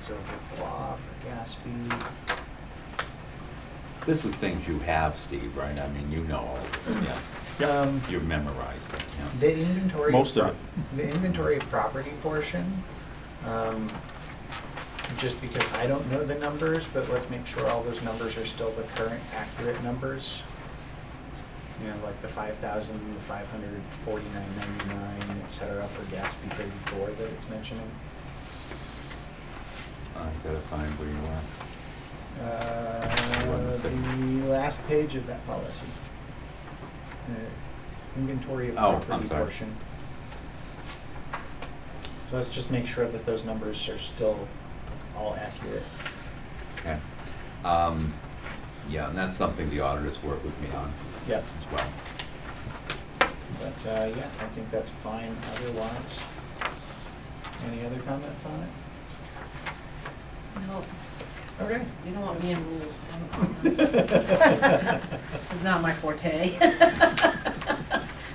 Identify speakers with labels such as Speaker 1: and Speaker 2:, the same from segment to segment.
Speaker 1: so for blah, for Gatsby.
Speaker 2: This is things you have, Steve, right? I mean, you know all this, yeah.
Speaker 1: Um,
Speaker 2: You've memorized it, yeah.
Speaker 1: The inventory.
Speaker 3: Most of it.
Speaker 1: The inventory of property portion, um, just because I don't know the numbers, but let's make sure all those numbers are still the current accurate numbers. You know, like the five thousand, the five hundred, forty-nine ninety-nine, et cetera, for Gatsby thirty-four that it's mentioning.
Speaker 2: I gotta find where you are.
Speaker 1: Uh, The last page of that policy. Uh, Inventory of
Speaker 2: Oh, I'm
Speaker 1: property
Speaker 2: sorry.
Speaker 1: portion. So let's just make sure that those numbers are still all accurate.
Speaker 2: Okay. Um, yeah, and that's something the auditors work with me on
Speaker 1: Yep.
Speaker 2: as well.
Speaker 1: But, uh, yeah, I think that's fine otherwise. Any other comments on it?
Speaker 4: No,
Speaker 1: Okay.
Speaker 4: you don't want me in rules, I don't This is not my forte.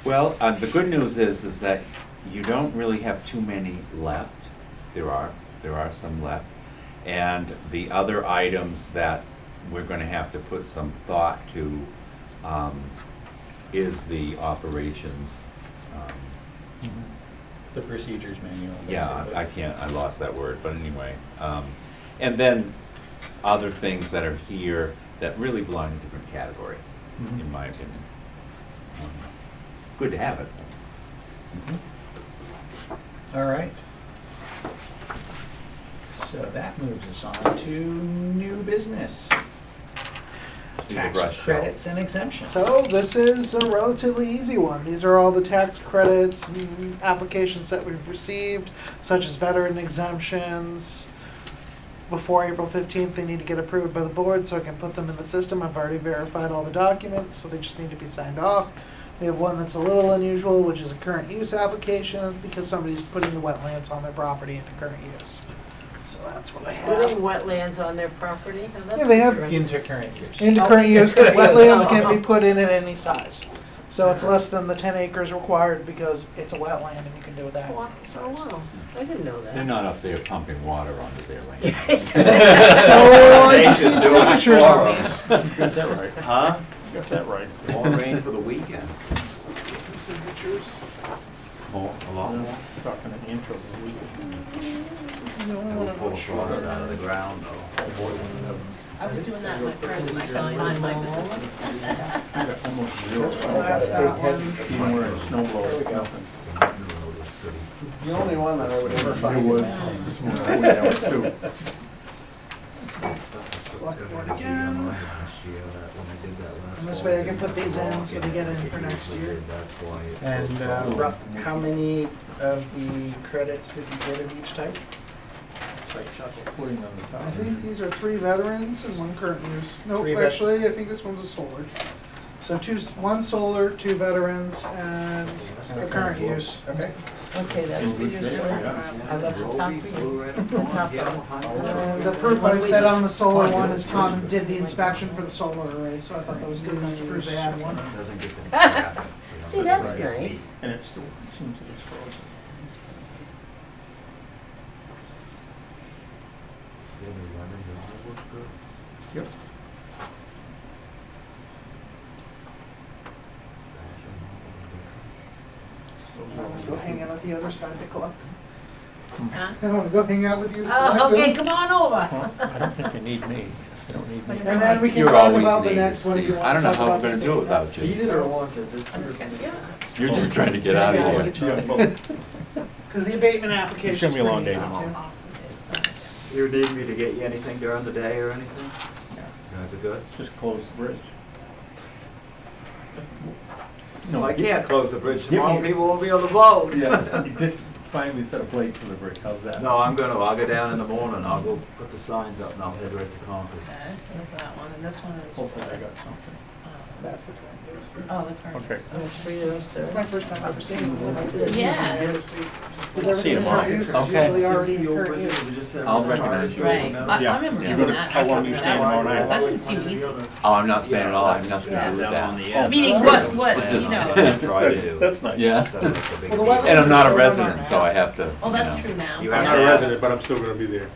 Speaker 4: Well,
Speaker 2: Well, uh, the good news is, is that you don't really have too many left. There are, there are some left. And the other items that we're gonna have to put some thought to, um, is the operations. um,
Speaker 1: The procedures manual.
Speaker 2: Mm-hmm. Yeah,
Speaker 1: basically.
Speaker 2: I can't, I lost that word, but anyway. um, And then other things that are here that really belong in a different category, in
Speaker 1: Mhm.
Speaker 2: my opinion. Um, Good to have it.
Speaker 1: Mm-hmm. All right. So that moves us on to new business.
Speaker 2: Do the
Speaker 1: Tax
Speaker 2: brush show.
Speaker 1: credits and exemptions.
Speaker 5: So this is a relatively easy one. These are all the tax credits and applications that we've received, such as veteran exemptions. Before April fifteenth, they need to get approved by the board, so I can put them in the system. I've already verified all the documents, so they just need to be signed off. We have one that's a little unusual, which is a current use application, That's because somebody's putting the wetlands on their property into current use. So that's what I
Speaker 4: putting
Speaker 5: have.
Speaker 4: wetlands on their property, now that's.
Speaker 5: Yeah, they have
Speaker 4: different.
Speaker 1: Into current use.
Speaker 5: Into
Speaker 4: Oh,
Speaker 5: current
Speaker 4: into
Speaker 5: use, 'cause
Speaker 4: current use.
Speaker 5: wetlands can
Speaker 4: Oh.
Speaker 5: be put in at any size. So it's less than the ten acres required because it's a wetland and you can do that.
Speaker 4: Wow, So, wow, I didn't know that.
Speaker 2: They're not up there pumping water onto their land.
Speaker 5: So I
Speaker 3: They
Speaker 5: just
Speaker 3: should
Speaker 5: need
Speaker 3: do it
Speaker 5: signatures
Speaker 3: for
Speaker 5: on
Speaker 3: 'em.
Speaker 5: these.
Speaker 3: Got that right. Huh? Got that right.
Speaker 2: More rain for the weekend.
Speaker 5: Get some signatures.
Speaker 2: More, a lot more.
Speaker 3: Talking an inch over a week.
Speaker 5: This is the only
Speaker 2: We'll
Speaker 5: one I'm
Speaker 2: pull
Speaker 5: not
Speaker 2: the
Speaker 5: sure.
Speaker 2: water out of the ground though.
Speaker 4: I was doing that in my Oh. purse, and I couldn't find my bag.
Speaker 3: Almost
Speaker 1: Oh,
Speaker 3: zero.
Speaker 5: So Oh, that's that one.
Speaker 3: Even where it's snow blows, nothing.
Speaker 5: It's the only one that I would ever
Speaker 3: It
Speaker 5: find.
Speaker 3: was, this one, I went out too.
Speaker 5: Select board again. And this way I can put these in so they get in for next year.
Speaker 1: And uh, rough, how many of the credits did you get of each type?
Speaker 3: It's like chocolate pudding on the top.
Speaker 5: I think these are three veterans and one current use. Nope,
Speaker 1: Three vet-
Speaker 5: actually, I think this one's a solar. So two, s- one solar, two veterans, and a current use.
Speaker 1: Uh, Okay.
Speaker 4: Okay, that's
Speaker 3: In good
Speaker 4: what you're
Speaker 3: shape, yeah.
Speaker 4: I left the top for you, the top
Speaker 5: And
Speaker 4: one.
Speaker 5: the proof I said on the solar one is Tom did the inspection for the solar array, so I thought that was good enough to prove they had one.
Speaker 4: Gee, that's nice.
Speaker 3: And it still seems to be frozen.
Speaker 1: Yep.
Speaker 5: I'm gonna go hang out at the other side to collect.
Speaker 4: Huh?
Speaker 5: I'm gonna go hang out with you to
Speaker 4: Oh,
Speaker 5: collect
Speaker 4: okay,
Speaker 5: them.
Speaker 4: come on over.
Speaker 3: Well, I don't think they need me, if they don't need me.
Speaker 5: And then we can
Speaker 2: You're
Speaker 5: talk
Speaker 2: always
Speaker 5: about the
Speaker 2: needed,
Speaker 5: next one if you
Speaker 2: Steve.
Speaker 5: want
Speaker 2: I don't
Speaker 5: to
Speaker 2: know
Speaker 5: talk
Speaker 2: how
Speaker 5: about
Speaker 2: I'm gonna
Speaker 5: the
Speaker 2: do it
Speaker 5: data.
Speaker 2: without you.
Speaker 6: Needed or wanted, this
Speaker 4: I'm just gonna, yeah.
Speaker 2: You're just trying to get out
Speaker 5: Yeah,
Speaker 2: of
Speaker 5: get
Speaker 2: here.
Speaker 5: your-
Speaker 3: Yeah, well,
Speaker 5: Cause the abatement application.
Speaker 3: It's gonna be a long day
Speaker 5: tomorrow.
Speaker 4: Awesome.
Speaker 6: You need me to get you anything during the day or anything? Got the goods?
Speaker 3: just close the bridge.
Speaker 6: No, I can't close the bridge
Speaker 3: Give me-
Speaker 6: tomorrow, people won't be on the boat.
Speaker 3: Yeah, you just find me a set of plates for the bridge, how's that?
Speaker 6: No, I'm gonna, I'll go down in the morning, I'll go put the signs up and I'll head right to Concord.
Speaker 4: Okay, so that's that one, and this one is.
Speaker 3: Hopefully I got something.
Speaker 4: um,
Speaker 5: That's the current use.
Speaker 4: Oh, the current.
Speaker 3: Okay.
Speaker 5: It's my first time ever seeing one like this.
Speaker 4: Yeah.
Speaker 5: Cause
Speaker 3: See you
Speaker 5: everything
Speaker 3: tomorrow.
Speaker 5: current use is
Speaker 2: Okay.
Speaker 5: usually already in
Speaker 6: It's the old
Speaker 5: current use.
Speaker 6: bridge, we just have
Speaker 2: I'll
Speaker 6: a-
Speaker 2: recognize you.
Speaker 4: Right, I
Speaker 3: Yeah,
Speaker 4: I remember
Speaker 3: you're
Speaker 4: doing
Speaker 3: gonna-
Speaker 4: that.
Speaker 3: how long you
Speaker 4: That
Speaker 3: staying
Speaker 4: was-
Speaker 3: all night?
Speaker 4: That didn't seem easy.
Speaker 2: Oh, I'm not staying at all. I have nothing to do with that.
Speaker 6: Yeah.
Speaker 4: Meaning what, what,
Speaker 2: It's
Speaker 4: you
Speaker 2: just-
Speaker 4: know,
Speaker 3: That's, that's nice.
Speaker 2: Yeah.
Speaker 5: Well, the wetland
Speaker 2: And I'm not a
Speaker 5: is still on our
Speaker 2: resident, so I
Speaker 5: maps.
Speaker 2: have to.
Speaker 4: oh,
Speaker 2: you
Speaker 4: that's
Speaker 2: know.
Speaker 4: true now.
Speaker 6: You
Speaker 4: Yeah.
Speaker 6: have to.
Speaker 3: but I'm still gonna be there.